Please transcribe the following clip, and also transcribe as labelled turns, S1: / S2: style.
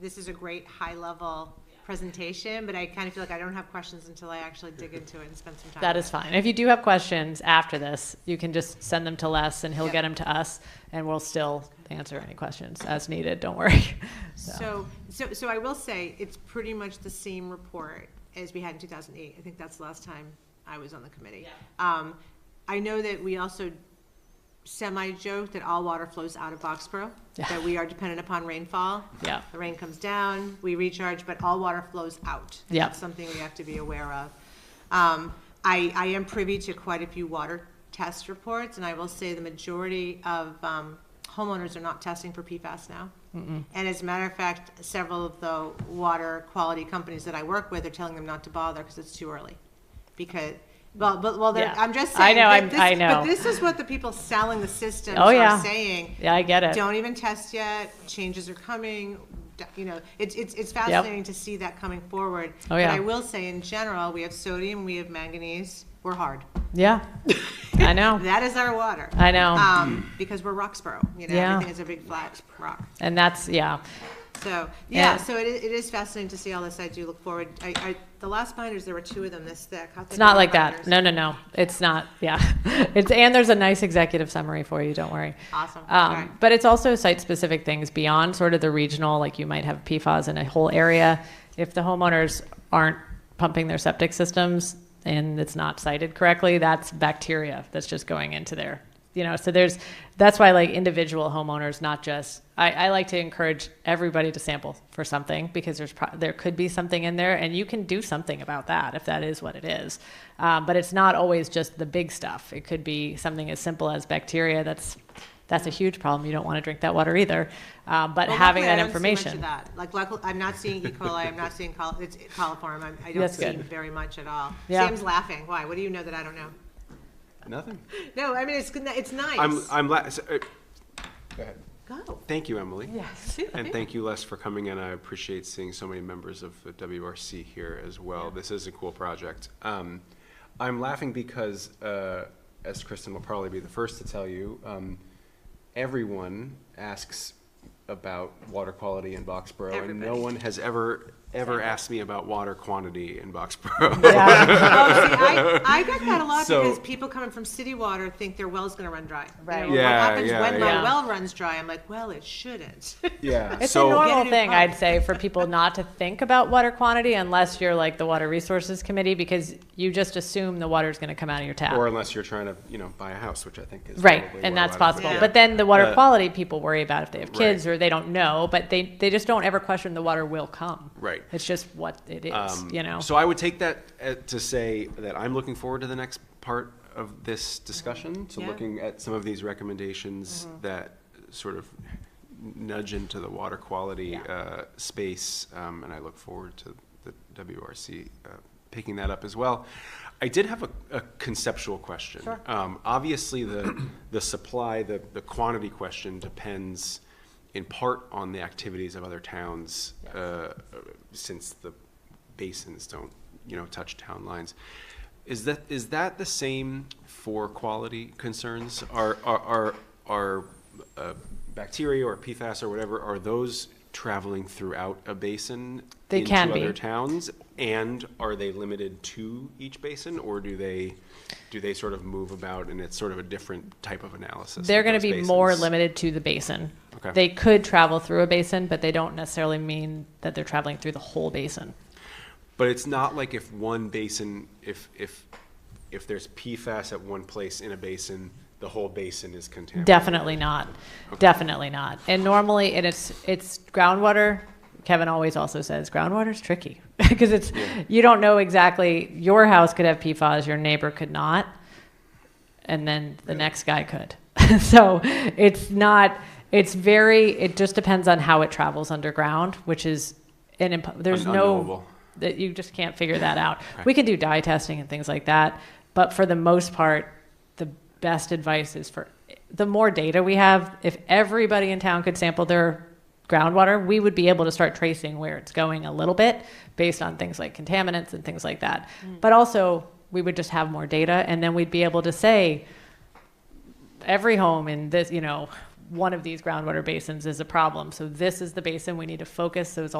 S1: this is a great high-level presentation, but I kind of feel like I don't have questions until I actually dig into it and spend some time.
S2: That is fine. If you do have questions after this, you can just send them to Les and he'll
S1: Yep.
S2: get them to us and we'll still answer any questions as needed. Don't worry.
S1: So, so, so I will say, it's pretty much the same report as we had in two thousand eight. I think that's the last time I was on the committee. Um, I know that we also semi-joked that all water flows out of Foxborough,
S2: Yeah.
S1: that we are dependent upon rainfall.
S2: Yeah.
S1: The rain comes down, we recharge, but all water flows out. And
S2: Yeah.
S1: That's something we have to be aware of. Um, I, I am privy to quite a few water test reports, and I will say the majority of um, homeowners are not testing for PFAS now. And as a matter of fact, several of the water quality companies that I work with are telling them not to bother because it's too early. Because, well, but, well, they're-
S2: Yeah.
S1: I'm just
S2: I
S1: saying.
S2: know,
S1: but
S2: I'm-
S1: this-
S2: I know.
S1: But this is what the people selling the systems
S2: Oh,
S1: are
S2: yeah.
S1: saying
S2: Yeah, I get it.
S1: don't even test yet, changes are coming, d- you know, it's, it's, it's fascinating to see that coming forward.
S2: Oh,
S1: But
S2: yeah.
S1: I will say, in general, we have sodium, we have manganese, we're hard.
S2: Yeah. I know.
S1: That is our water.
S2: I know.
S1: Um, because we're Roxborough, you know,
S2: Yeah.
S1: everything is a big flat rock.
S2: And that's, yeah.
S1: So, yeah,
S2: Yeah.
S1: so it, i- it is fascinating to see all this, I do look forward, I, I, the last binders, there were two of them this thick. How
S2: It's not like that. No, no, no. It's not. Yeah. It's, and there's a nice executive summary for you. Don't worry.
S1: Awesome, okay.
S2: Um, but it's also site specific things beyond sort of the regional, like you might have PFAS in a whole area. If the homeowners aren't pumping their septic systems and it's not cited correctly, that's bacteria that's just going into there. You know, so there's that's why like individual homeowners, not just I, I like to encourage everybody to sample for something because there's pro- there could be something in there and you can do something about that if that is what it is. Um, but it's not always just the big stuff. It could be something as simple as bacteria that's that's a huge problem. You don't want to drink that water either. Um, but
S1: Well,
S2: having
S1: luckily, I
S2: that
S1: don't see much of
S2: information,
S1: that. Like, luckily, I'm not seeing E. coli, I'm not seeing col, it's coliform, I'm- I don't
S2: That's
S1: see
S2: good.
S1: very much at all.
S2: Yeah.
S1: Sam's laughing, why? What do you know that I don't know?
S3: Nothing.
S1: No, I mean, it's, good- it's
S3: I'm,
S1: nice.
S3: I'm, la- so, uh,
S1: Go.
S3: thank you, Emily. And thank you, Les, for coming in. I appreciate seeing so many members of the WRC here as well. This is a cool project. Um, I'm laughing because, uh, as Kristen will probably be the first to tell you, um, everyone asks about water quality in Boxborough, and no
S1: Everybody.
S3: one has ever, ever asked me about water quantity in Boxborough.
S2: yeah,
S1: Oh, see, I, I get that a lot
S3: So-
S1: because people coming from city water think their well's gonna run dry. You
S2: Right.
S1: know, What
S3: Yeah,
S1: happens
S3: yeah,
S1: when my
S2: yeah.
S1: well runs dry? I'm like, well, it shouldn't.
S3: Yeah.
S2: it's
S3: so-
S2: a
S1: Get a
S2: normal
S1: new
S2: thing,
S1: pump.
S2: I'd say, for people not to think about water quantity unless you're like the Water Resources Committee because you just assume the water's going to come out of your tap.
S3: Or unless you're trying to, you know, buy a house, which I think is
S2: Right,
S3: probably
S2: and
S3: where a
S2: that's
S3: lot of
S2: possible.
S3: people-
S1: Yeah.
S2: But then the water
S3: Uh,
S2: quality people worry about if they have
S3: Right.
S2: kids or they don't know, but they, they just don't ever question the water will come.
S3: Right.
S2: It's just what it is,
S3: Um,
S2: you know?
S3: So I would take that uh, to say that I'm looking forward to the next part of this
S2: Mm-hmm.
S3: discussion, to
S1: Yeah.
S3: looking at some of these recommendations that sort of nudge into the water quality uh, space, um, and I look forward to the WRC uh, picking that up as well. I did have a, a conceptual question. Um, obviously, the the supply, the the quantity question depends in part on the activities of other towns, uh, since the basins don't, you know, touch town lines. Is that, is that the same for quality concerns? Are, are, are, are uh, bacteria or PFAS or whatever, are those traveling throughout a basin?
S2: They can be.
S3: Into other towns? And are they limited to each basin, or do they, do they sort of move about and it's sort of a different type of analysis?
S2: They're
S3: of
S2: going to be
S3: those
S2: more
S3: basins?
S2: limited to the basin.
S3: Okay.
S2: They could travel through a basin, but they don't necessarily mean that they're traveling through the whole basin.
S3: But it's not like if one basin, if, if, if there's PFAS at one place in a basin, the whole basin is contaminated.
S2: Definitely not. Definitely not. And normally, and it's it's groundwater. Kevin always also says groundwater's tricky because it's you don't know exactly. Your house could have PFAS, your neighbor could not, and then the next guy could. so it's not. It's very. It just depends on how it travels underground, which is an imp- there's
S3: Un-
S2: no
S3: unknowable.
S2: that you just can't figure that out. We can do dye testing and things like that, but for the most part, the best advice is for the more data we have, if everybody in town could sample their groundwater, we would be able to start tracing where it's going a little bit based on things like contaminants and things like that. But also, we would just have more data and then we'd be able to say every home in this, you know, one of these groundwater basins is a problem. So this is the basin we need to focus those